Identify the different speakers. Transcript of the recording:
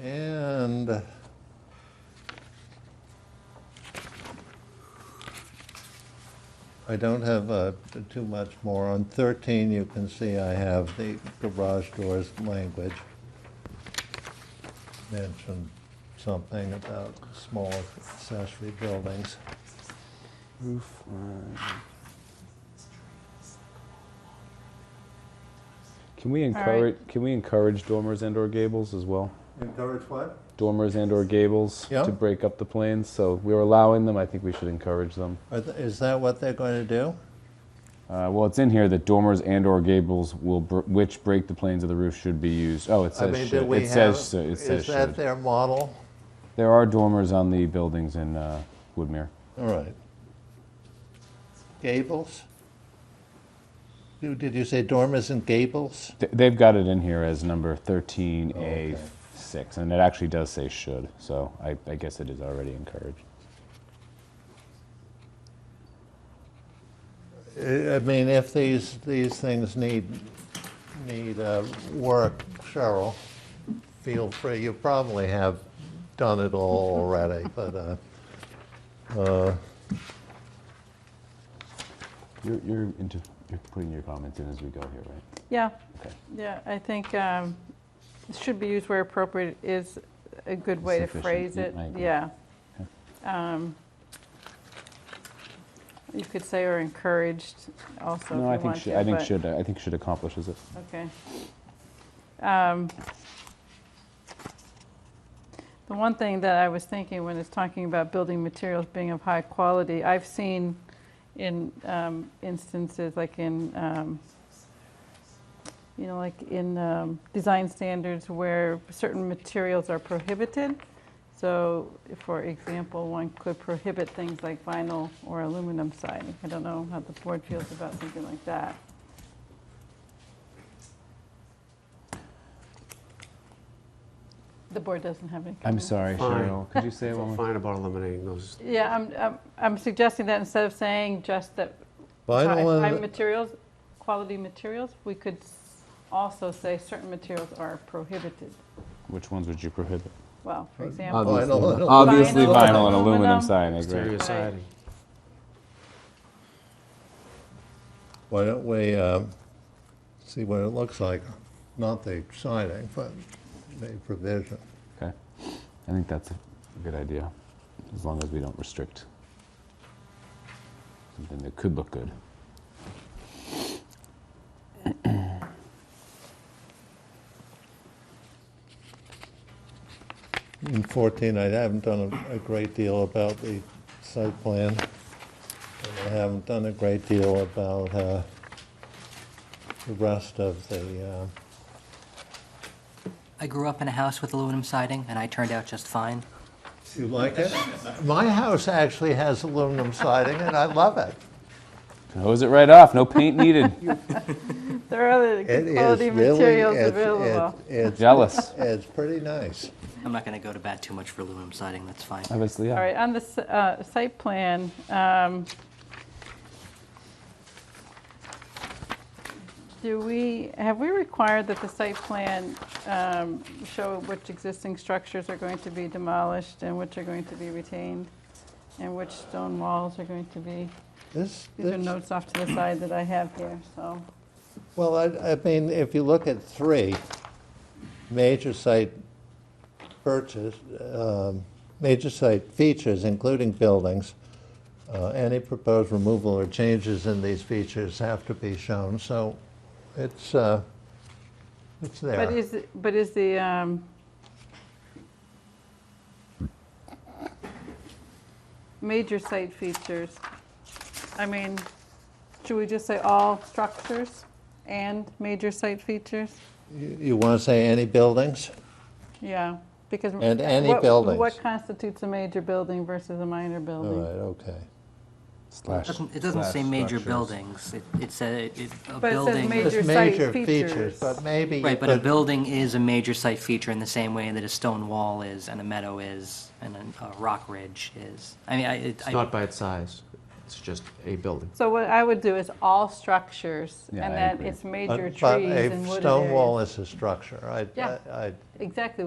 Speaker 1: And I don't have uh, t- too much more. On 13, you can see I have the garage doors language. Mentioned something about small accessory buildings.
Speaker 2: Roof line. Can we
Speaker 3: right.
Speaker 2: encourage, can we encourage dormers and or gables as well?
Speaker 1: Encourage what?
Speaker 2: Dormers and or gables
Speaker 1: Yeah.
Speaker 2: to break up the planes, so we were allowing them, I think we should encourage them.
Speaker 1: Is that what they're going to do?
Speaker 2: Uh, well, it's in here that dormers and or gables will, br- which break the planes of the roof should be used, oh, it
Speaker 1: I
Speaker 2: says
Speaker 1: mean, do
Speaker 2: should,
Speaker 1: we
Speaker 2: it
Speaker 1: have,
Speaker 2: says, so- it says
Speaker 1: is that
Speaker 2: should.
Speaker 1: their model?
Speaker 2: There are dormers on the buildings in uh, Woodmere.
Speaker 1: All right. Gables? You- Did you say dormers and gables?
Speaker 2: Th- They've got it in here as number 13A6, and it actually does say should, so I, I guess it is already encouraged.
Speaker 1: Uh, I I mean, if these, these things need, need uh, work, Cheryl, feel free. You probably have done it all already, but, uh,
Speaker 2: You're, you're, into, you're putting your comments in as we go here, right?
Speaker 3: Yeah,
Speaker 2: Okay.
Speaker 3: yeah, I think um, should be used where appropriate is a good way to
Speaker 2: Sufficient,
Speaker 3: phrase it.
Speaker 2: I agree.
Speaker 3: Yeah. Um, You could say or encouraged also
Speaker 2: No, I
Speaker 3: if you
Speaker 2: think,
Speaker 3: want
Speaker 2: should,
Speaker 3: to.
Speaker 2: I think
Speaker 3: but-
Speaker 2: should, I think should accomplishes it.
Speaker 3: Okay. Um, The one thing that I was thinking when it's talking about building materials being of high quality, I've seen in um, instances like in, um, you know, like in um, design standards where certain materials are prohibited. So, for example, one could prohibit things like vinyl or aluminum siding. I don't know how the board feels about something like that. The board doesn't have any
Speaker 2: I'm
Speaker 3: comment.
Speaker 2: sorry,
Speaker 4: Fine.
Speaker 2: Cheryl, could you say
Speaker 4: Feel
Speaker 2: one more?
Speaker 4: Fine about eliminating those.
Speaker 3: Yeah, I'm, I'm, I'm suggesting that instead of saying just that high,
Speaker 1: vinyl
Speaker 3: high
Speaker 1: and,
Speaker 3: materials, quality materials, we could s- also say certain materials are prohibited.
Speaker 2: Which ones would you prohibit?
Speaker 3: Well, for example,
Speaker 1: Obviously. Vinyl and
Speaker 2: Obviously
Speaker 3: aluminum.
Speaker 2: vinyl and aluminum
Speaker 3: Aluminum.
Speaker 2: siding,
Speaker 4: Exterior
Speaker 2: right?
Speaker 4: siding.
Speaker 1: why don't we um, see what it looks like? Not the siding, but the provision.
Speaker 2: Okay, I think that's a good idea, as long as we don't restrict something that could look good.
Speaker 1: In 14, I haven't done a- a great deal about the site plan, and I haven't done a great deal about uh, the rest of the, uh,
Speaker 5: I grew up in a house with aluminum siding, and I turned out just fine.
Speaker 1: you like it? My house actually has aluminum siding, and I love it.
Speaker 2: Can hose it right off, no paint needed.
Speaker 3: there are other
Speaker 1: It is
Speaker 3: quality
Speaker 1: really-
Speaker 3: materials
Speaker 1: it's-
Speaker 3: available.
Speaker 1: it's- it's-
Speaker 2: Jealous.
Speaker 1: It's pretty nice.
Speaker 5: I'm not going to go to bat too much for aluminum siding, that's fine.
Speaker 2: Obviously,
Speaker 3: All right, on the s- uh, site plan, um, do we, have we required that the site plan um, show which existing structures are going to be demolished and which are going to be retained? And which stone walls are going to be,
Speaker 1: This,
Speaker 3: these are
Speaker 1: this-
Speaker 3: notes off to the side that I have here, so.
Speaker 1: Well, I, I mean, if you look at three, major site purchase, um, major site features, including buildings, uh, any proposed removal or changes in these features have to be shown, so it's, uh, it's
Speaker 3: But
Speaker 1: there.
Speaker 3: is, it- but is the, um, major site features, I mean, should we just say all structures and major site features?
Speaker 1: You you want to say any buildings?
Speaker 3: Yeah, because.
Speaker 1: And any
Speaker 3: what-
Speaker 1: buildings.
Speaker 3: What constitutes a major building versus a minor
Speaker 1: All
Speaker 3: building?
Speaker 1: right, okay.
Speaker 5: It doesn't, it doesn't say major buildings, it, it said, it, a
Speaker 3: But it says
Speaker 5: building.
Speaker 3: major-
Speaker 1: Just
Speaker 3: site
Speaker 1: major
Speaker 3: features.
Speaker 1: features, but maybe you
Speaker 5: Right, but a
Speaker 1: could
Speaker 5: building is a major site feature in the same way that a stone wall is, and a meadow is, and a, a rock ridge is. I mean, I, it-
Speaker 4: It's
Speaker 5: I.
Speaker 4: not by its size. It's just a building.
Speaker 3: So what I would do is all structures,
Speaker 2: Yeah,
Speaker 3: and
Speaker 2: I
Speaker 3: then
Speaker 2: agree.
Speaker 3: it's major
Speaker 1: But
Speaker 3: trees
Speaker 1: but
Speaker 3: and wooded
Speaker 1: a stone wall
Speaker 3: areas.
Speaker 1: is a structure. I-
Speaker 3: Yeah.
Speaker 1: I- I-
Speaker 3: Exactly,